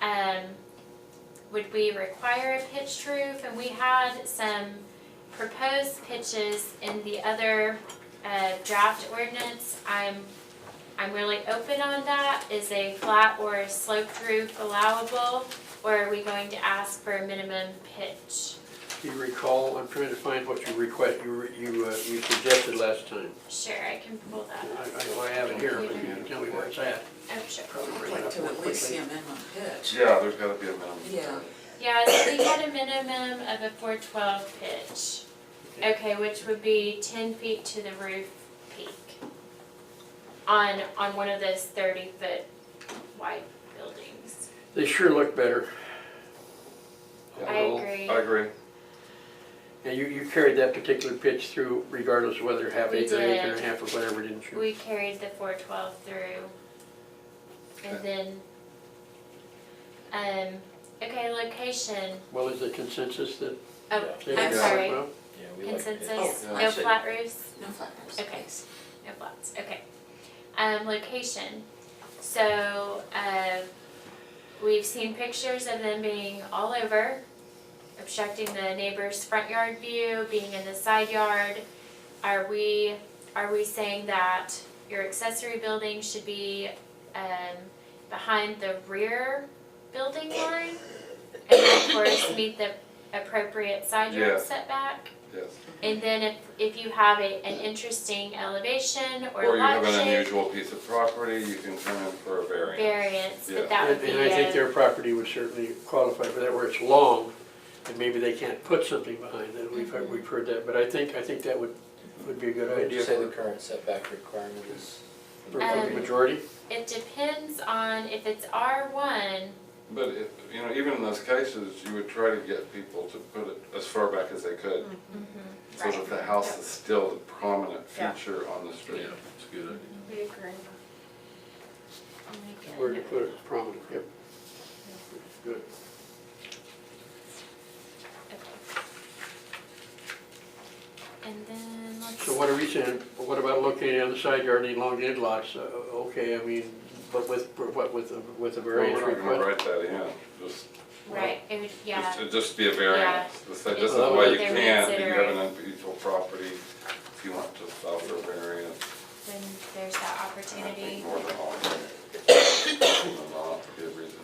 um, would we require a pitched roof? And we had some proposed pitches in the other uh, draft ordinance. I'm, I'm really open on that. Is a flat or a sloped roof allowable? Or are we going to ask for a minimum pitch? Do you recall, I'm trying to find what you request, you, re- you, uh, you suggested last time. Sure, I can pull I, that up. I, I have it here, but you can tell me where it's at. Oh, sure. Probably I'd bring it like up to more at least see quickly. a minimum pitch. Yeah, there's gotta be a minimum. Yeah. Yeah, so we had a minimum of a four twelve pitch. Okay, which would be ten feet to the roof peak. On, on one of those thirty foot wide buildings. They sure look better. I Overall. agree. I agree. And you, you carried that particular pitch through regardless of whether half We acre, acre did. and a half or whatever, didn't you? We carried the four twelve through. And then, um, okay, location. Well, is the consensus that? Oh, they I'm like sorry. well? Yeah, we like it. Consensus, Oh, no actually- flat roofs? No flappers. Okay. No flats, okay. Um, location, so, uh, we've seen pictures of them being all over, obstructing the neighbor's front yard view, being in the side yard. Are we, are we saying that your accessory building should be, um, behind the rear building line? And of course, meet the appropriate side Yeah. yard setback? Yes. And then if, if you have a, an interesting elevation Or or you have lot an shape unusual piece of property, you can turn in for a variance. variance, Yeah. that that And would be uh, and I think a, their property would certainly qualify for that, where it's long, and maybe they can't put something behind it, we've, heard- we've heard that, but I think, I think that would, would be a good Would you idea say the for, current setback requirement is? for Um, Um, the majority. it depends on if it's R one, But if, you know, even in those cases, you would try to get people to put it as far back as they could, Mm-hmm. so that the house is still the prominent Yeah. feature on the street. it's a good idea. We agree. Where to put it prominent, yep. Good. And then let's. So what are we saying, what about locating on the side yard and elongated lots, Uh, okay, I mean, but with, what, with, a- with a Well, variance we're not gonna request? write that in, just, Right, it would, yeah, just, it'd just be a variance, to say this is Well, why you they're can't, if you have reconsidering. an unusual property, if you want to file for a variance. then there's that And I opportunity. think more than all, than not, be reasonable.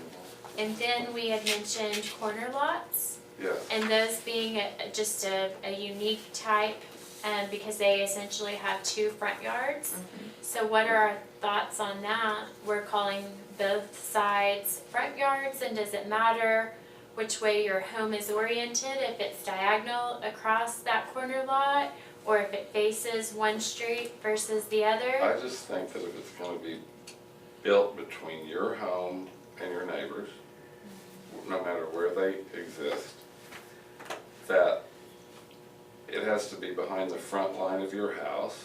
And then we had mentioned corner lots. Yes. And those being a, a- just a, a unique type, um, because they essentially have two front yards. So what are our thoughts on that? We're calling both sides front yards, and does it matter which way your home is oriented, if it's diagonal across that corner lot? Or if it faces one street versus the other? I just think that if it's gonna be built between your home and your neighbors, no matter where they exist, that it has to be behind the front line of your house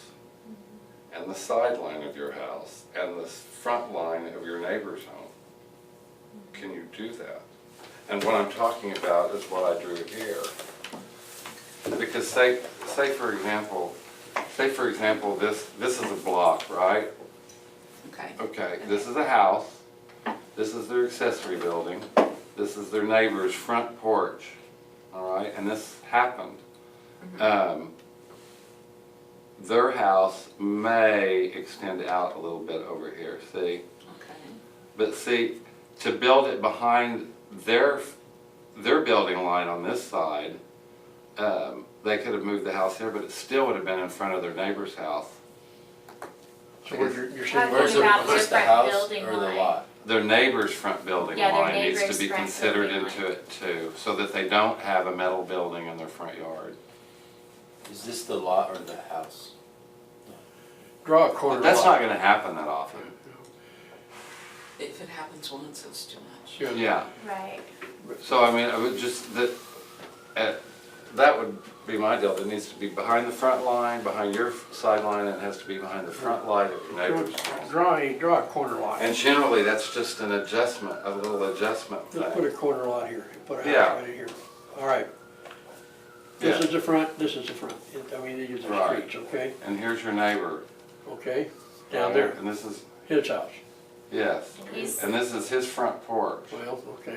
and the side line of your house and the s- front line of your neighbor's home. Can you do that? And what I'm talking about is what I drew here. Because say, say for example, say for example, this, this is a block, right? Okay. Okay, this is a house, this is their accessory building, this is their neighbor's front porch, all right, and this happened. Um, Their house may extend out a little bit over here, see? Okay. But see, to build it behind their, their building line on this side, um, they could have moved the house here, but it still would have been in front of their neighbor's house. So what you're, you're Why saying, would where's Where's Where's the- about where's the the, the, where's the different house house building or or the the line? lot? lot? Their neighbor's front building Yeah, their line needs to neighbor's be front considered building into it too, so that they don't have a metal building in their front yard. Is this the lot or the house? draw a But corner that's lot. not gonna happen that often. If it happens once, it's too much. Yeah. Yeah, Right. so I mean, I would just, that, uh, that would be my deal, it needs to be behind the front line, behind your sideline, and it has to be behind the front line of your neighbor's. house. Draw a, draw a corner lot. And generally, that's just an adjustment, a little adjustment Let's put a thing. corner lot here, put a Yeah. house right here. All right. Yeah. This is the front, this is the front. It- I mean, these are Right. streets, okay? And here's your neighbor. Okay, down there, And this is, his house. yes, He's- and this is his front porch. Well, okay.